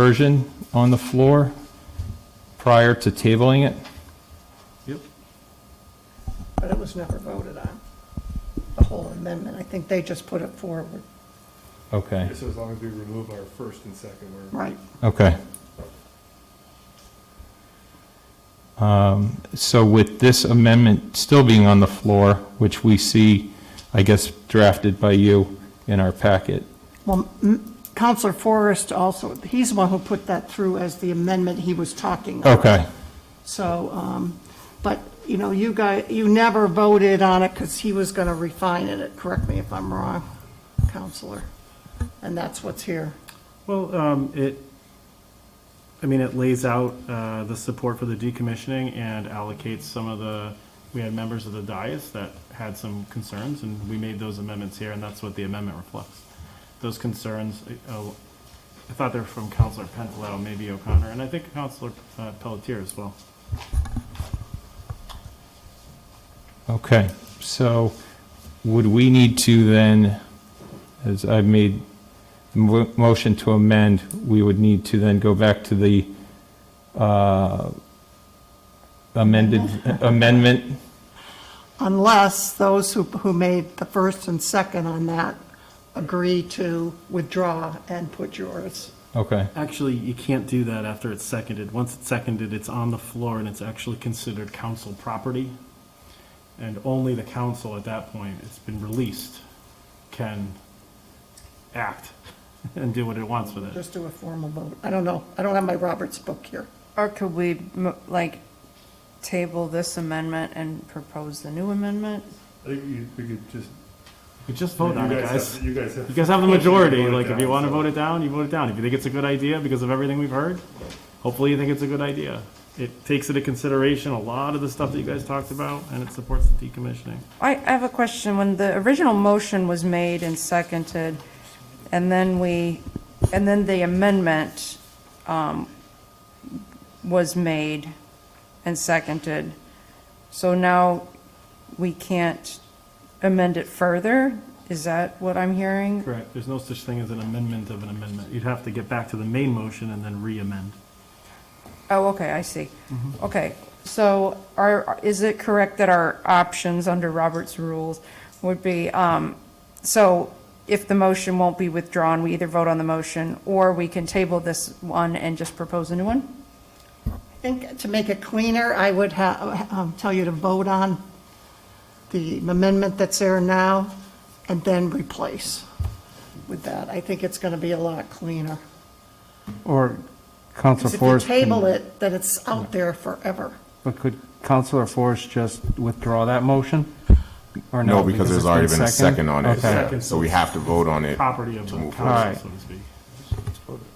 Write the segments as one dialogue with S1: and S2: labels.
S1: version on the floor prior to tabling it?
S2: Yep.
S3: but it was never voted on, the whole amendment. I think they just put it forward.
S1: Okay,
S2: So as long as we remove our first and second, we're.
S3: Right.
S1: okay. Um, So with this amendment still being on the floor, which we see, I guess, drafted by you in our packet,
S3: Well, m- Counselor Forrest also, he's the one who put that through as the amendment he was talking about.
S1: okay,
S3: So, um, but, you know, you guys, you never voted on it because he was going to refine it. Correct me if I'm wrong, Counselor. And that's what's here.
S2: Well, um, it, I mean, it lays out, uh, the support for the decommissioning and allocates some of the, we had members of the dais that had some concerns and we made those amendments here and that's what the amendment reflects. Those concerns, uh, I thought they were from Counselor Pentelow, maybe O'Connor, and I think Counselor uh, Pelletier as well.
S1: okay. So would we need to then, as I've made the mo- motion to amend, we would need to then go back to the uh, amended amendment
S3: Unless those who, who made the first and second on that agree to withdraw and put yours.
S1: Okay,
S2: Actually, you can't do that after it's seconded. Once it's seconded, it's on the floor and it's actually considered council property. And only the council at that point, it's been released, can act and do what it wants with it.
S3: Just do a formal vote. I don't know. I don't have my Roberts book here.
S4: Or could we, mo- like, table this amendment and propose the new amendment?
S5: I think you, we could just.
S2: You just vote on it, guys.
S5: have- You guys have.
S2: You guys have the majority, like, if you
S5: down,
S2: want to
S5: so-
S2: vote it down, you vote it down. If you think it's a good idea because of everything we've heard, hopefully you think it's a good idea. It takes into consideration a lot of the stuff that you guys talked about and it supports the decommissioning.
S4: I, I have a question. When the original motion was made and seconded, and then we, and then the amendment, um, was made and seconded. So now we can't amend it further? Is that what I'm hearing?
S2: Correct, there's no such thing as an amendment of an amendment. You'd have to get back to the main motion and then re-amend.
S4: Oh, okay, I see. Okay, so are, is it correct that our options under Robert's rules would be, um, so if the motion won't be withdrawn, we either vote on the motion, or we can table this one and just propose a new one?
S3: I think to make it cleaner, I would ha- um, tell you to vote on the amendment that's there now and then replace with that. I think it's going to be a lot cleaner.
S6: Or
S3: 'Cause
S6: Counselor
S3: if you
S6: Forrest. can-
S3: table it, then it's out there forever.
S6: But could Counselor Forrest just withdraw that motion? Or
S7: No, because there's
S6: it's
S7: already been a second on it,
S6: Okay.
S7: yeah. so we have to vote on it.
S2: Property of the council,
S6: forward.
S2: so to speak.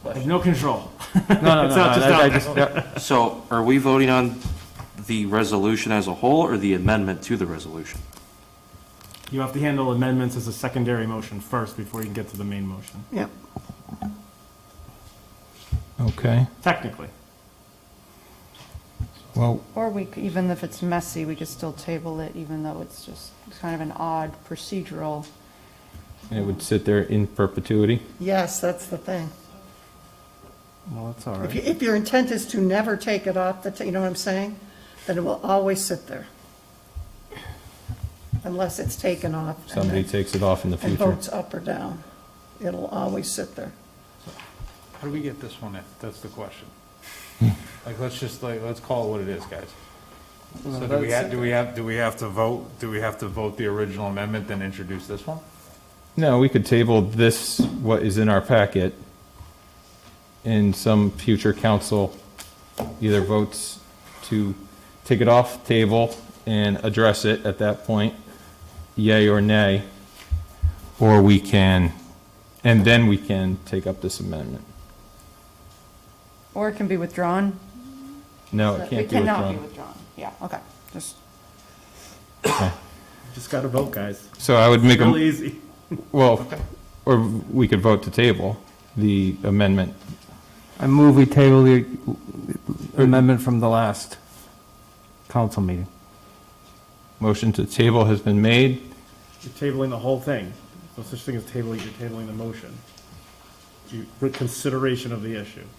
S2: I have no control.
S6: No, no,
S2: It's
S6: no,
S2: not
S6: no,
S2: just
S6: I- I
S2: out
S6: just, yeah,
S8: So are we voting on the resolution as a whole or the amendment to the resolution?
S2: You have to handle amendments as a secondary motion first before you can get to the main motion,
S3: Yep.
S1: okay.
S2: technically.
S1: Well,
S4: Or we, c- even if it's messy, we could still table it, even though it's just kind of an odd procedural.
S1: it would sit there in perpetuity.
S3: Yes, that's the thing.
S6: well, that's all
S3: If you-
S6: right.
S3: If your intent is to never take it off, the ta- you know what I'm saying? Then it will always sit there. Unless it's taken off. and
S1: Somebody
S3: then-
S1: takes it off in the
S3: And
S1: future.
S3: votes up or down. It'll always sit there.
S9: How do we get this one in? That's the question. Like, let's just, like, let's call it what it is, guys. So do we have, do we have, do we have to vote, do we have to vote the original amendment, then introduce this one?
S1: No, we could table this, what is in our packet, in some future council either votes to take it off table and address it at that point, yay or nay, or we can, and then we can take up this amendment.
S4: Or it can be withdrawn?
S1: No, it can't be
S4: It cannot be
S1: withdrawn.
S4: withdrawn, yeah, okay, just.
S2: Just gotta vote, guys.
S1: So I would make a.
S2: Real easy.
S1: Well, or we could vote to table the amendment.
S6: I move we table the amendment from the last council meeting.
S1: Motion to table has been made.
S2: You're tabling the whole thing. No such thing as tabling, you're tabling the motion. You- Consideration of the issue.